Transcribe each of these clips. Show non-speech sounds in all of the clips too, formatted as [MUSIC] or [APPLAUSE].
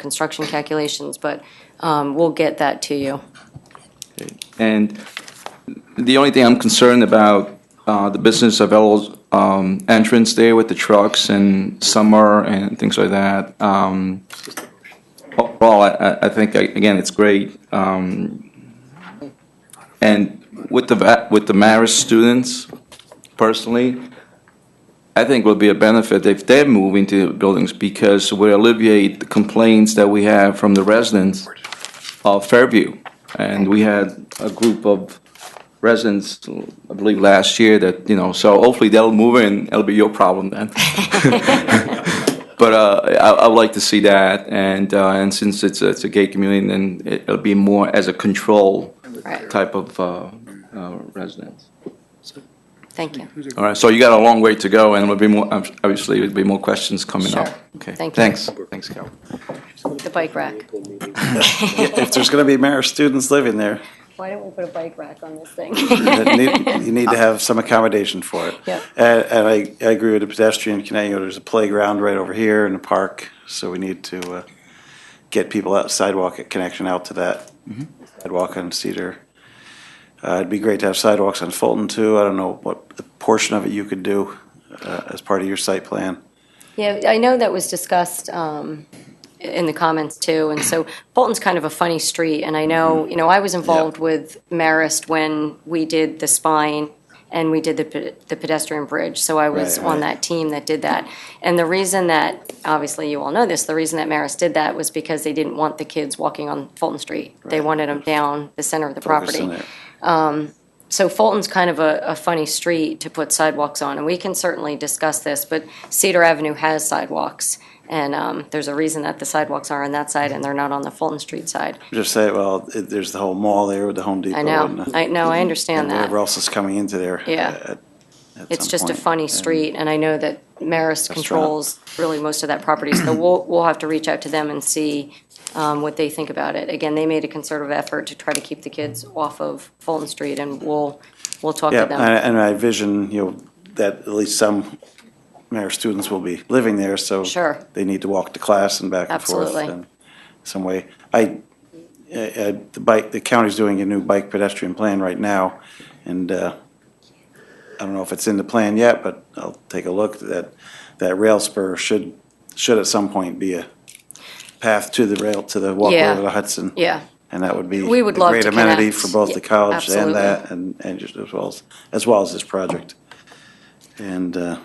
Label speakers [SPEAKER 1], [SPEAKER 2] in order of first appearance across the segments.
[SPEAKER 1] construction calculations, but um, we'll get that to you.
[SPEAKER 2] And the only thing I'm concerned about, uh, the business of Elo's, um entrance there with the trucks and summer and things like that. Um, Overall, I- I, I think, I- again, it's great. Um, And with the, va- with the Marist students, personally, I think would be a benefit if they move into buildings because we alleviate the complaints that we have from the residents of Fairview. And we had a group of residents, I believe, last year that, you know, so hopefully they'll move in, it'll be your problem then. But uh, I, I would like to see that, and, uh, and since it's, a- it's a gay community, then it- it'll be more as a control
[SPEAKER 1] Right.
[SPEAKER 2] type of uh, uh, residence.
[SPEAKER 1] Thank you.
[SPEAKER 2] All right, so you got a long way to go, and it'll be more, obviously, there'll be more questions coming up.
[SPEAKER 1] Sure.
[SPEAKER 2] Okay.
[SPEAKER 1] Thank you.
[SPEAKER 2] Thanks, thanks, Cal.
[SPEAKER 1] The bike rack.
[SPEAKER 3] if there's going to be Marist students living there,
[SPEAKER 1] Why don't we put a bike rack on this thing?
[SPEAKER 3] that need, you need to have some accommodation for it.
[SPEAKER 1] Yep.
[SPEAKER 3] And, and I, I agree with the pedestrian connect, there's a playground right over here and a park, so we need to, uh, get people out, sidewalk connection out to that.
[SPEAKER 1] Mm-hmm.
[SPEAKER 3] Sidewalk on Cedar. Uh, it'd be great to have sidewalks on Fulton too, I don't know what the portion of it you could do, uh, as part of your site plan.
[SPEAKER 1] [LAUGHS] Yeah, I know that was discussed um, in the comments too, and so Bolton's kind of a funny street, and I know, you know, I was involved with Marist when we did the spine and we did the pe- the pedestrian bridge, so I was
[SPEAKER 3] Right,
[SPEAKER 1] on
[SPEAKER 3] right.
[SPEAKER 1] that team that did that. And the reason that, obviously you all know this, the reason that Marist did that was because they didn't want the kids walking on Fulton Street. They
[SPEAKER 3] Right.
[SPEAKER 1] wanted them down the center of the
[SPEAKER 3] Focus
[SPEAKER 1] property.
[SPEAKER 3] on it.
[SPEAKER 1] So Fulton's kind of a, a funny street to put sidewalks on, and we can certainly discuss this, but Cedar Avenue has sidewalks. And, um, there's a reason that the sidewalks are on that side and they're not on the Fulton Street side.
[SPEAKER 3] Just say, well, it- there's the whole mall there with the Home Depot.
[SPEAKER 1] I know,
[SPEAKER 3] and-
[SPEAKER 1] I know, I understand
[SPEAKER 3] And whatever
[SPEAKER 1] that.
[SPEAKER 3] else is coming into there. uh,
[SPEAKER 1] Yeah.
[SPEAKER 3] at- at
[SPEAKER 1] It's
[SPEAKER 3] some
[SPEAKER 1] just a
[SPEAKER 3] point.
[SPEAKER 1] funny
[SPEAKER 3] And-
[SPEAKER 1] street, and I know that Marist controls really most of that property, so we'll, we'll have to reach out to them and see, um, what they think about it. Again, they made a concerted effort to try to keep the kids off of Fulton Street, and we'll, we'll talk to
[SPEAKER 3] Yeah,
[SPEAKER 1] them.
[SPEAKER 3] and, and I vision, you know, that at least some Marist students will be living there, so.
[SPEAKER 1] Sure.
[SPEAKER 3] They need to walk to class and back and forth.
[SPEAKER 1] Absolutely.
[SPEAKER 3] in Some way. I, uh, uh, the bike, the county's doing a new bike pedestrian plan right now, and, uh, I don't know if it's in the plan yet, but I'll take a look. That, that rail spur should, should at some point be a path to the rail, to the walkway
[SPEAKER 1] Yeah.
[SPEAKER 3] of the Hudson.
[SPEAKER 1] Yeah,
[SPEAKER 3] And that would be.
[SPEAKER 1] We would
[SPEAKER 3] a
[SPEAKER 1] love to
[SPEAKER 3] Great amenity
[SPEAKER 1] connect.
[SPEAKER 3] for both the
[SPEAKER 1] Yeah,
[SPEAKER 3] college
[SPEAKER 1] absolutely.
[SPEAKER 3] and that, and, and just as well as, as well as this project. And, uh,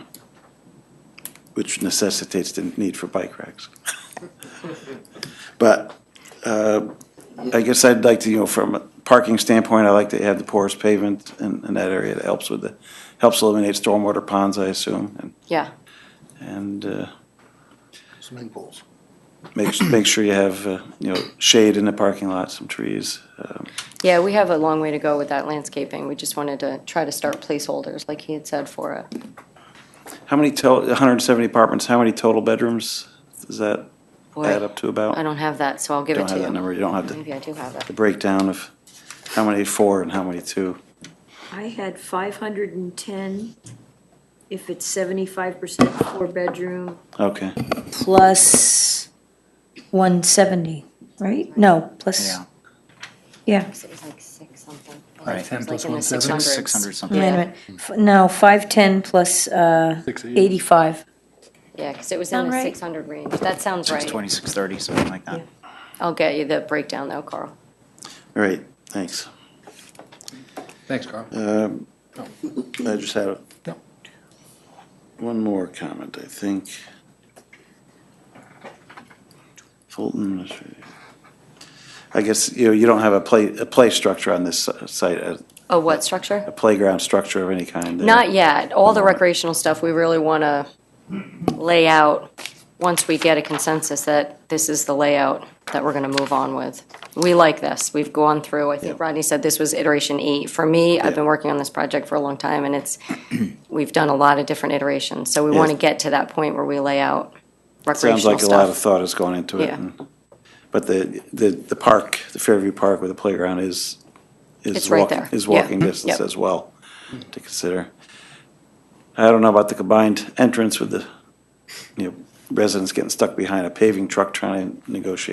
[SPEAKER 3] which necessitates the need for bike racks. [LAUGHS] But, uh, I guess I'd like to, you know, from a parking standpoint, I like to have the porous pavement in, in that area. It helps with the, helps eliminate stormwater ponds, I assume, and
[SPEAKER 1] yeah.
[SPEAKER 3] and uh,
[SPEAKER 4] Swimming pools.
[SPEAKER 3] make, make sure you have, uh, you know, shade in the parking lot, some trees. um,
[SPEAKER 1] Yeah, we have a long way to go with that landscaping. We just wanted to try to start placeholders, like he had said, for it.
[SPEAKER 3] How many total, 170 apartments, how many total bedrooms does that add
[SPEAKER 1] Boy,
[SPEAKER 3] up to about?
[SPEAKER 1] I don't have that, so I'll give
[SPEAKER 3] You
[SPEAKER 1] it
[SPEAKER 3] Don't
[SPEAKER 1] to
[SPEAKER 3] have that
[SPEAKER 1] you.
[SPEAKER 3] number, you don't have the-
[SPEAKER 1] Maybe I do have
[SPEAKER 3] the
[SPEAKER 1] it.
[SPEAKER 3] breakdown of how many four and how many two.
[SPEAKER 5] I had five hundred and ten, if it's seventy-five percent four-bedroom,
[SPEAKER 3] Okay,
[SPEAKER 6] plus 170, right? No, plus,
[SPEAKER 7] Yeah,
[SPEAKER 6] yeah.
[SPEAKER 1] It was like six something.
[SPEAKER 7] right,
[SPEAKER 1] It was
[SPEAKER 7] 10 plus
[SPEAKER 1] like in the
[SPEAKER 7] 170, 600
[SPEAKER 1] 600s.
[SPEAKER 6] Wait a
[SPEAKER 1] Yeah.
[SPEAKER 7] something.
[SPEAKER 6] minute. F- No, 510 plus uh, 85.
[SPEAKER 1] Yeah, because it was in
[SPEAKER 6] Sound
[SPEAKER 1] the
[SPEAKER 6] right?
[SPEAKER 1] 600 range. That sounds right.
[SPEAKER 7] 620, 630, something like that.
[SPEAKER 1] I'll get you the breakdown though, Carl.
[SPEAKER 3] all right, thanks.
[SPEAKER 4] Thanks, Carl.
[SPEAKER 3] Um, I just had a-
[SPEAKER 4] No.
[SPEAKER 3] one more comment, I think. Fulton, I guess, you know, you don't have a play, a play structure on this si- site, a
[SPEAKER 1] Oh, what
[SPEAKER 3] a
[SPEAKER 1] structure?
[SPEAKER 3] playground structure of any kind? there.
[SPEAKER 1] Not yet. All the recreational stuff, we really want to lay out once we get a consensus that this is the layout that we're going to move on with. We like this. We've gone through, I think
[SPEAKER 3] Yeah.
[SPEAKER 1] Rodney said this was iteration eight. For me, I've been
[SPEAKER 3] Yeah.
[SPEAKER 1] working on this project for a long time, and it's, we've done a lot of different iterations. So we want to
[SPEAKER 3] Yes.
[SPEAKER 1] get to that point where we lay out
[SPEAKER 3] Sounds
[SPEAKER 1] recreational
[SPEAKER 3] like a lot of
[SPEAKER 1] stuff.
[SPEAKER 3] thought has gone into it.
[SPEAKER 1] Yeah.
[SPEAKER 3] and- But the, the, the park, the Fairview Park with the playground is,
[SPEAKER 1] It's
[SPEAKER 3] is
[SPEAKER 1] right
[SPEAKER 3] walking,
[SPEAKER 1] there,
[SPEAKER 3] is
[SPEAKER 1] yeah, Mm-hmm.
[SPEAKER 3] walking distance
[SPEAKER 1] yep.
[SPEAKER 3] as well to consider. I don't know about the combined entrance with the, you know, residents getting stuck behind a paving truck trying to negotiate